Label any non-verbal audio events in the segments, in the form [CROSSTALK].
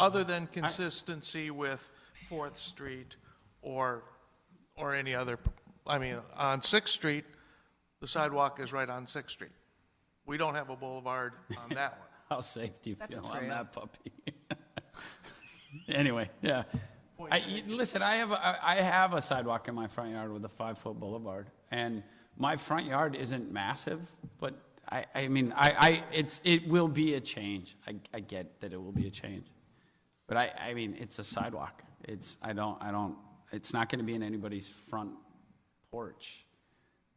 other than consistency with Fourth Street or, or any other, I mean, on Sixth Street, the sidewalk is right on Sixth Street. We don't have a boulevard on that one. How safe do you That's feel true. on that puppy? Anyway, yeah. I, you- listen, I have, a- I I have a sidewalk in my front yard with a five-foot boulevard, and my front yard isn't massive, but I, I mean, I, I, it's, it will be a change. I, I get that it will be a change. But I, I mean, it's a sidewalk. It's, I don't, I don't, it's not gonna be in anybody's front porch.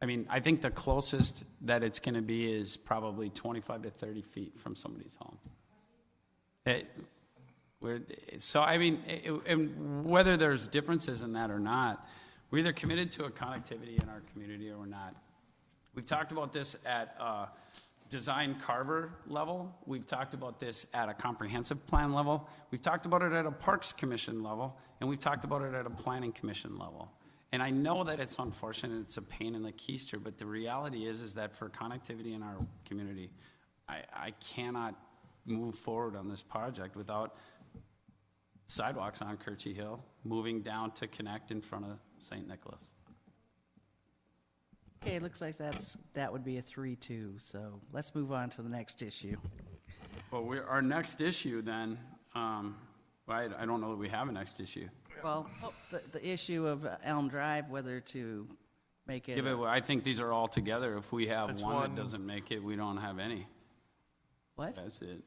I mean, I think the closest that it's gonna be is probably twenty-five to thirty feet from somebody's home. It- we're- so, I mean, it- it- and whether there's differences in that or not, we're either committed to a connectivity in our community or we're not. We've talked about this at a design carver level. We've talked about this at a comprehensive plan level. We've talked about it at a Parks Commission level, and we've talked about it at a Planning Commission level. And I know that it's unfortunate, it's a pain in the keister, but the reality is, is that for connectivity in our community, I, I cannot move forward on this project without sidewalks on Kirchy Hill, moving down to connect in front of St. Nicholas. Okay, it looks like that's, that would be a three-two, so let's move on to the next issue. Well, we, our next issue then, um, I, I don't know that we have a next issue. Well, the, the issue of Elm Drive, whether to make Yeah, it, but I think these are all together. If we have That's one one. that doesn't make it, we don't have any. what? That's it.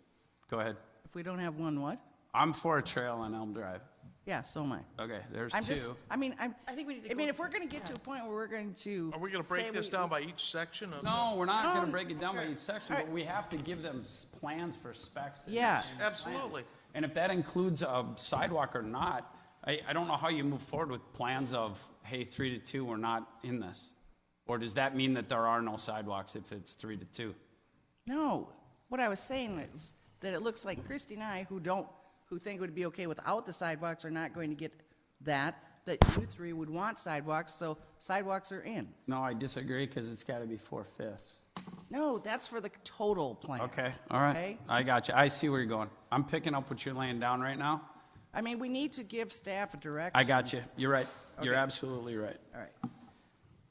Go ahead. If we don't have one, what? I'm for a trail on Elm Drive. Yeah, so am I. Okay, there's I'm just, two. I mean, I'm, I think we need to I mean, go if we're gonna get to a point where we're going to. [LAUGHS] Are we gonna say break this we- down by each section of? No, we're not gonna No, break it down by Oh, okay. each section, but we have to give them s- plans for specs. and- Yeah. and Absolutely. plans. And if that includes a sidewalk or not, I, I don't know how you move forward with plans of, hey, three to two, we're not in this. Or does that mean that there are no sidewalks if it's three to two? No, what I was saying is that it looks like Christie and I, who don't, who think it would be okay without the sidewalks, are not going to get that, that you three would want sidewalks, so sidewalks are in. No, I disagree, because it's gotta be four-fifths. No, that's for the total plan. Okay, all right. Okay? I got you. I see where you're going. I'm picking up what you're laying down right now. I mean, we need to give staff a direction. I got you. You're right. You're Okay. absolutely right. All right.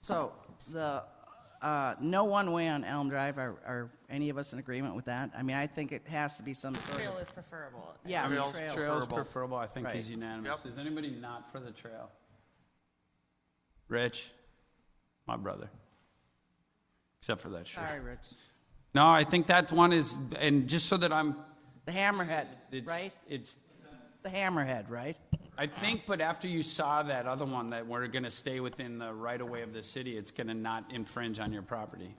So the, uh, no one-way on Elm Drive, are, are any of us in agreement with that? I mean, I think it has to be some sort Trail of, is preferable. yeah, Trails- trail. Trail's Preferable. preferable, I think is Right. unanimous. Yep. Is anybody not for the trail? Rich, my brother. Except for that shirt. Sorry, Rich. No, I think that one is, and just so that I'm, The hammerhead, right? it's, it's, The hammerhead, right? I think, but after you saw that other one, that we're gonna stay within the right of way of the city, it's gonna not infringe on your property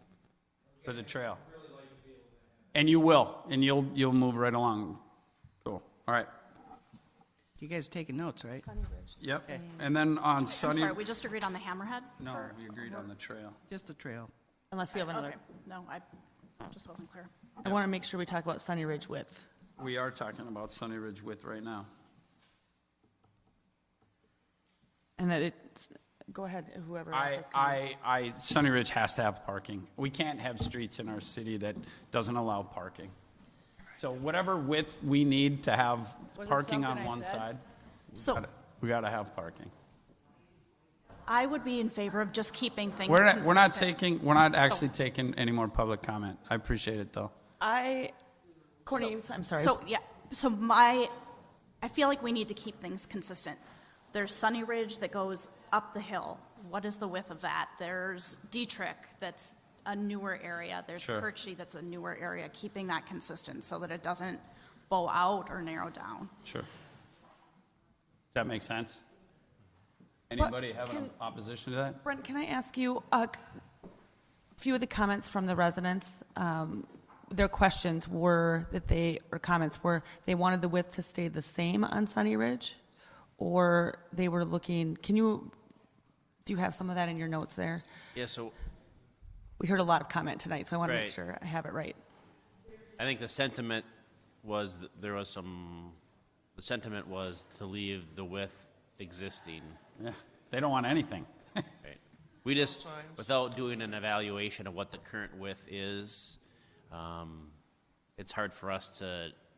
for the trail. And you will, and you'll, you'll move right along. Cool, all right, You guys are taking notes, right? yep. And then on I'm Sunny, sorry, we just agreed on the hammerhead? no, for- we agreed on the trail. Just the trail. Unless you have another, Okay, no, I just wasn't clear. I want to make sure we talk about Sunny Ridge width. We are talking about Sunny Ridge width right now. And that it's, go ahead, whoever else I, has comments. I, I, Sunny Ridge has to have parking. We can't have streets in our city that doesn't allow parking. So whatever width we need to have Was it parking something on I one said? side, So we gotta have parking. I would be in favor of just keeping things We're not, consistent. we're not taking, we're not actually taking any more public comment. I appreciate it, though. I, So- Courtney, I'm sorry. So, yeah, so my, I feel like we need to keep things consistent. There's Sunny Ridge that goes up the hill. What is the width of that? There's Dietrich, that's a newer area. There's Sure. Perchy, that's a newer area, keeping that consistent so that it doesn't bow out or narrow down. Sure. Does that make sense? Anybody have an can- opposition to that? Brent, can I ask you, a few of the comments from the residents, um, their questions were that they, or comments were, they wanted the width to stay the same on Sunny Ridge? Or they were looking, can you, do you have some of that in your notes there? Yeah, so We heard a lot of comment tonight, so I want to make Right. sure I have it right. I think the sentiment was that there was some. The sentiment was to leave the width existing. Yeah, They don't want anything. Right. We just, without doing an evaluation of what the current width is, um, it's hard for us to